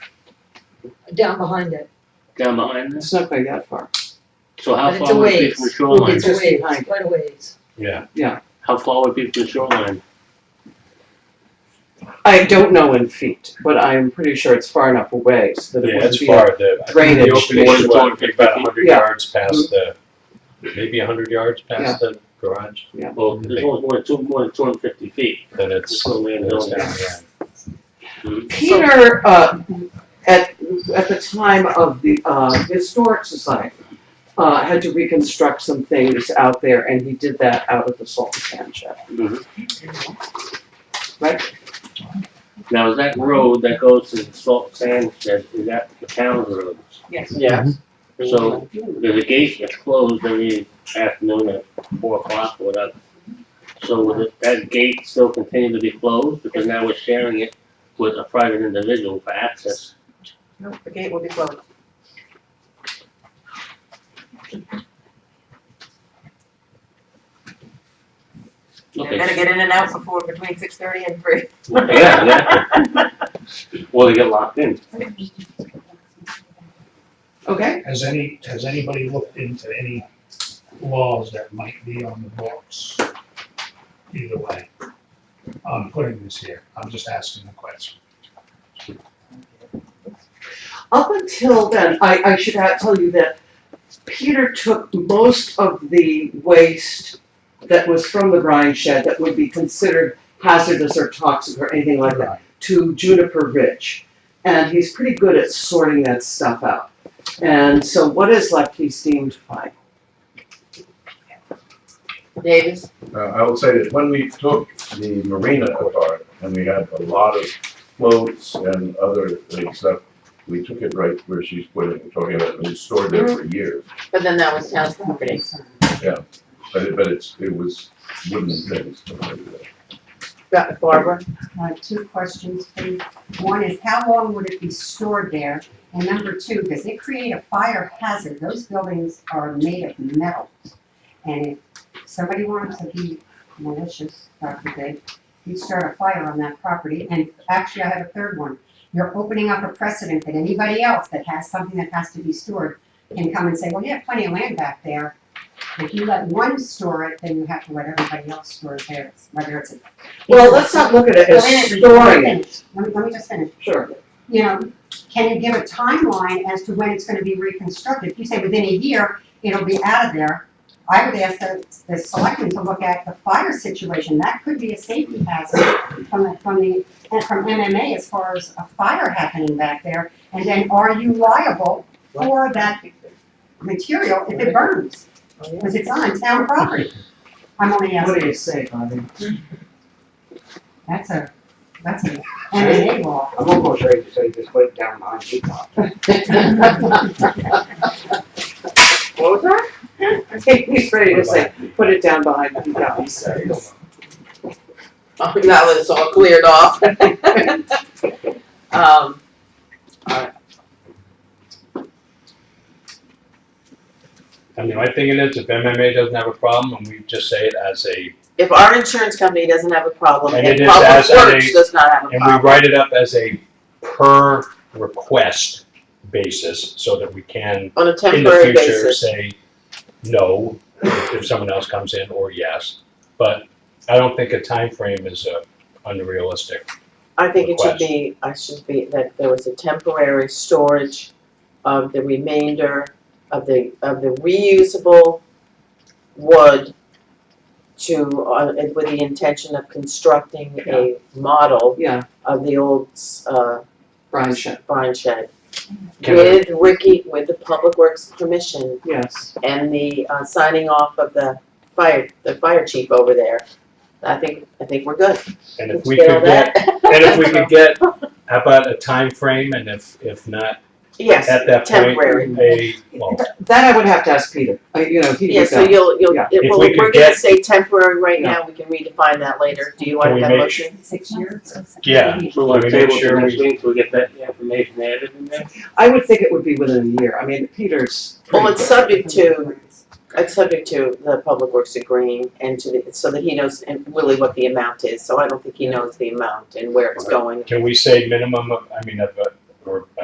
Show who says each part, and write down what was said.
Speaker 1: down behind it.
Speaker 2: down behind this?
Speaker 3: It's not quite that far.
Speaker 2: So how
Speaker 1: But it's
Speaker 2: far
Speaker 1: a
Speaker 2: would be
Speaker 1: ways.
Speaker 2: from the shoreline?
Speaker 1: It's a
Speaker 3: Just
Speaker 1: ways,
Speaker 3: behind it.
Speaker 1: quite a ways.
Speaker 4: Yeah,
Speaker 2: How far would be from the shoreline?
Speaker 3: I don't know in feet, but I'm pretty sure it's far enough away so that it
Speaker 4: yeah,
Speaker 3: wouldn't
Speaker 4: it's
Speaker 3: be.
Speaker 4: far, the, I think
Speaker 3: drainage
Speaker 4: the opening
Speaker 2: issue.
Speaker 4: is what, about a hundred
Speaker 3: Yeah. Mm-hmm.
Speaker 4: yards past the, maybe a hundred yards past the garage,
Speaker 2: Well, there's only more than two, more than two hundred and fifty feet.
Speaker 4: then
Speaker 2: It's
Speaker 4: it's,
Speaker 2: on land
Speaker 4: then it's
Speaker 2: building.
Speaker 4: down the
Speaker 3: Peter, uh, at, at the time of the, uh, Historic Society, uh, had to reconstruct some things out there and he did that out of the salt and sand shed.
Speaker 2: Mhm.
Speaker 3: Right.
Speaker 2: Mm-hmm. Now, is that road that goes to the salt sand shed, is that the town road?
Speaker 1: Yes.
Speaker 5: Yes.
Speaker 2: So there's a gate that's closed every afternoon at four o'clock or whatever. So would it- that gate still continue to be closed because now we're sharing it with a private individual for access?
Speaker 1: No, the gate will be closed.
Speaker 2: Okay.
Speaker 1: get in and out before, between six thirty and three.
Speaker 2: Yeah, exactly. Well, they get locked in.
Speaker 3: Okay,
Speaker 5: Has any, has anybody looked into any laws that might be on the books? Either way, I'm putting this here, I'm just asking the question.
Speaker 3: up until then, I, I should add- tell you that Peter took most of the waste that was from the brine shed that would be considered hazardous or toxic or anything like that. to Juniper Ridge. And he's pretty good at sorting that stuff out. And so what is left he's deemed fine.
Speaker 1: Davis?
Speaker 6: Uh, I will say that when we took the marina apart, and we had a lot of floats and other things that, we took it right where she's putting, talking about, and it stored there for years.
Speaker 7: But then that was town's property.
Speaker 6: But it, but it's, it was wooden things.
Speaker 7: Got Barbara?
Speaker 8: uh, two questions, please. One is how long would it be stored there? And number two, does it create a fire hazard? Those buildings are made of metal. And if somebody wanted to be malicious, God forbid, you'd start a fire on that property. And actually, I have a third one. You're opening up a precedent that anybody else that has something that has to be stored can come and say, well, you have plenty of land back there. If you let one store it, then you have to let everybody else store it there, whether it's a.
Speaker 3: Well, let's not look at it as
Speaker 8: Well, wait a
Speaker 3: storing it.
Speaker 8: minute, let me finish. Let me, let me just finish.
Speaker 3: Sure.
Speaker 8: You know, can you give a timeline as to when it's gonna be reconstructed? If you say within a year, it'll be out of there, I would ask the, the selectmen to look at the fire situation. That could be a safety hazard from the, from the, and from MMA as far as a fire happening back there. And then are you liable for that material if it burns? Because it's on town property. I'm only asking.
Speaker 3: What do you say, Bobby?
Speaker 8: That's a, that's a MMA law.
Speaker 9: I'm almost ready to say just put it down behind you, Bob.
Speaker 3: What was that? I think he's ready to say, put it down behind the house.
Speaker 7: Now Oh, that it's all cleared off. Um,
Speaker 4: I mean, my thing it is, if MMA doesn't have a problem, and we just say it as a,
Speaker 7: if our insurance company doesn't have a problem,
Speaker 4: And
Speaker 7: and
Speaker 4: it is
Speaker 7: Public
Speaker 4: as a-
Speaker 7: Works does not have a
Speaker 4: and we
Speaker 7: problem.
Speaker 4: write it up as a per request basis, so that we can,
Speaker 7: On a
Speaker 4: in the
Speaker 7: temporary
Speaker 4: future,
Speaker 7: basis,
Speaker 4: say no, if if someone else comes in, or yes. But I don't think a time frame is uh, unrealistic.
Speaker 7: I think it should
Speaker 4: request.
Speaker 7: be, I should be, that there was a temporary storage of the remainder of the, of the reusable wood to, uh, with the intention of constructing a model
Speaker 3: Yeah,
Speaker 7: of the old, uh,
Speaker 3: brine shed,
Speaker 7: barn shed.
Speaker 4: Can I-
Speaker 7: With Ricky, with the Public Works permission
Speaker 3: yes.
Speaker 7: and the uh, signing off of the fire, the fire chief over there, I think, I think we're good.
Speaker 4: And if
Speaker 7: Let's
Speaker 4: we
Speaker 7: get all
Speaker 4: could get,
Speaker 7: that.
Speaker 4: and if we could get, how about a time frame? and if, if not,
Speaker 7: Yes,
Speaker 4: at that point,
Speaker 7: temporary.
Speaker 4: a, well,
Speaker 3: Th- That I would have to ask Peter, I, you know, he
Speaker 7: yeah,
Speaker 3: would
Speaker 7: so
Speaker 3: know.
Speaker 7: you'll, you'll,
Speaker 3: Yeah.
Speaker 7: it-
Speaker 4: If
Speaker 7: well,
Speaker 4: we could
Speaker 7: we're gonna
Speaker 4: get-
Speaker 7: say temporary right now, we can redefine that later, do you
Speaker 4: Can
Speaker 7: want
Speaker 4: we
Speaker 7: that
Speaker 4: make
Speaker 7: motion?
Speaker 8: six years. or something.
Speaker 4: Yeah.
Speaker 2: So we're
Speaker 4: Can we make
Speaker 2: table
Speaker 4: sure
Speaker 2: to next
Speaker 4: we-
Speaker 2: week, so we get that information added in there?
Speaker 3: I would think it would be within a year, I mean, Peter's
Speaker 7: Well,
Speaker 3: pretty
Speaker 7: it's
Speaker 3: quick.
Speaker 7: subject to, it's subject to the Public Works agreeing and to the, so that he knows and really what the amount is, so I don't think he knows the amount and where it's going.
Speaker 4: can we say minimum of, I mean, of, a- or